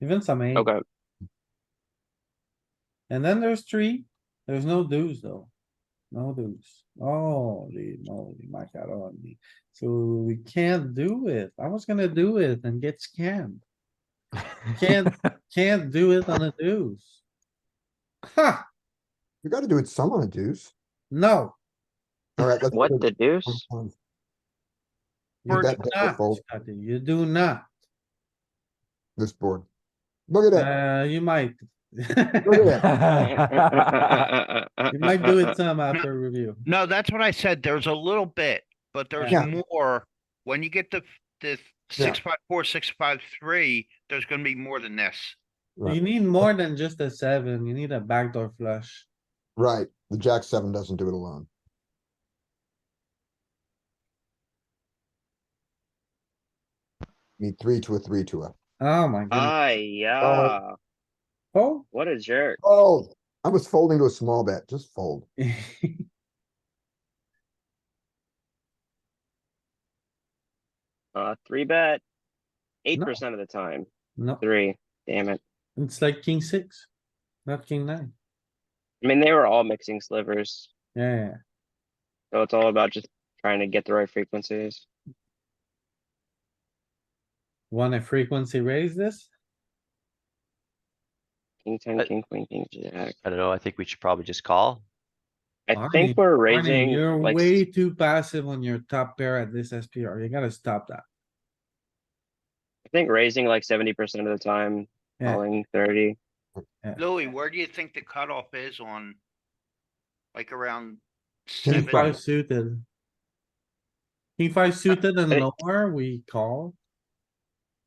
even some eight. Okay, And then there's three. There's no deuce though. No deuce. Holy moly, my god, holy. So we can't do it. I was gonna do it and get scammed. Can't, can't do it on a deuce. Ha, You gotta do it some on a deuce. no. Alright, let's. what do the it deuce? You do one time. You bet big or not, fold Scotty, you do not. this board. Look at that, Uh, you might. look at that. You might do it some after review. No, that's what I said. There's a little bit, but there's Yeah. more. When you get to f- the Yeah. six, five, four, six, five, three, there's gonna be more than this. You Right, need more than just a seven. You need a backdoor flush. Right, the jack seven doesn't do it alone. Need three to a three to a, Oh my god. Ah, yeah, Uh, Oh. what a jerk. oh, I was folding to a small bet, just fold. Uh, three bet, eight No. percent of the time, No, three, damn it. it's like king six, not king nine. I mean, they were all mixing slivers, Yeah, so it's all about just trying to get the right frequencies. wanna frequency raise this? King ten, But- king queen, king jack. I don't know, I think we should probably just call. I Arnie, think we're Arnie, raising You're like, way too passive on your top pair at this SPR. You gotta stop that. I think raising like seventy percent of the time, Yeah. calling thirty. Louis, where do you think the cutoff is on? Like around King King seven? five suited. King five suited and Hey. lower, we call.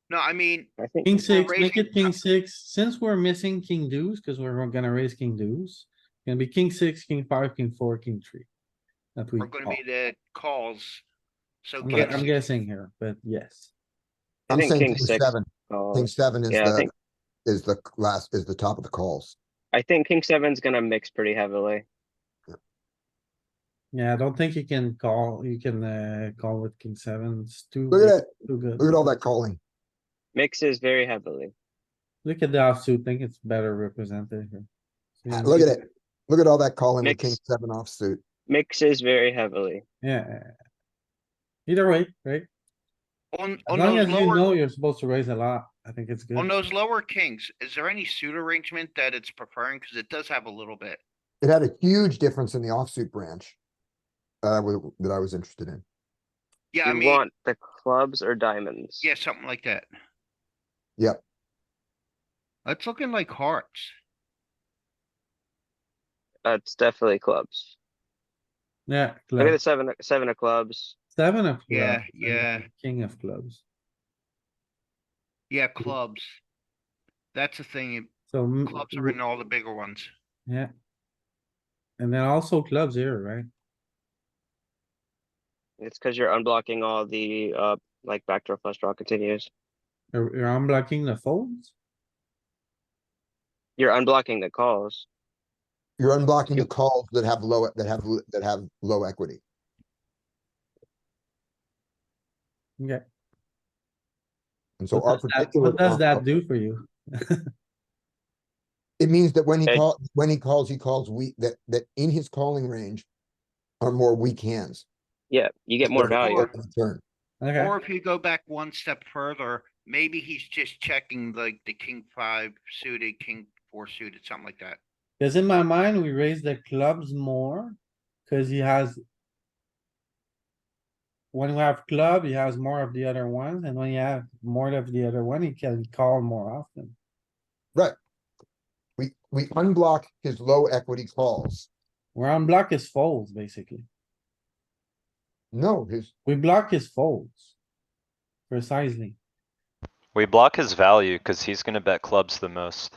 No, I mean, I think King six, make raising- it king six. Since we're missing king deuce, cuz we're gonna raise king deuce. Gonna be king six, king five, king four, king three. That we we're gonna call. be the calls. So. I'm king gu- I'm six- guessing here, but yes. I I'm think saying king king six seven, king calls. seven is Yeah, I the, think, is the last, is the top of the calls. I think king seven's gonna mix pretty heavily. Yeah, I don't think you can call, you can uh call with king seven, it's too, Look at big, that, too good. look at all that calling. Mixes very heavily. Look at the offsuit, think it's better represented here. So Ah, you Look at can- it. Look at all that calling with Mix. king seven offsuit. Mixes very heavily. Yeah. Either way, right? On, As on long those as you Oh, lower, Oh, know you're supposed to raise a lot, I think it's good. on those lower kings, is there any suit arrangement that it's preferring? Cause it does have a little bit. It had a huge difference in the offsuit branch. That I was, that I was interested in. Yeah, I You mean, want the clubs or diamonds? yeah, something like that. Yep, That's looking like hearts. That's definitely clubs. Yeah, Look at club, the seven, seven of clubs. seven of. Yeah, clubs and yeah. King of clubs. Yeah, clubs. That's the thing. So, m- Clubs are in all the bigger ones. yeah. And then also clubs here, right? It's because you're unblocking all the, uh, like backdoor flush draw continues. You're you're unblocking the folds? You're unblocking the calls. you're unblocking the calls that have low, that have, l- that have low equity. Okay. And so our What does that- particular. What does that combo- do for you? It means that when he Okay. call, when he calls, he calls weak, that, that in his calling range are more weak hands. Yeah, you get more They're value. forward of the Turn. Okay. Or if you go back one step further, maybe he's just checking like the king five suited, king four suited, something like that. Cause in my mind, we raise the clubs more, cause he has. When we have club, he has more of the other ones, and when you have more of the other one, he can call more often. We, we unblock his low equity calls. We're on block his folds, basically. No, his, We block his folds. Precisely. We block his value cuz he's gonna bet clubs the most.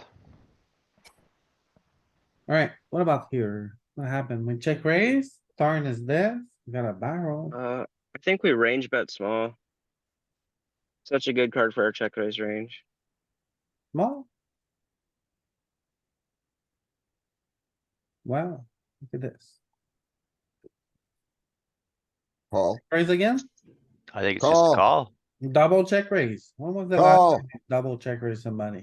Alright, what about here? What happened? We check raise, Tarn is dead, we got a barrel. Uh, I think we range bet small. Such a good card for our check raise range. Small. Wow, look at this. call, Raise again? I think it's just Call. a call. Double check raise. When was the last Call. time you double check raise somebody?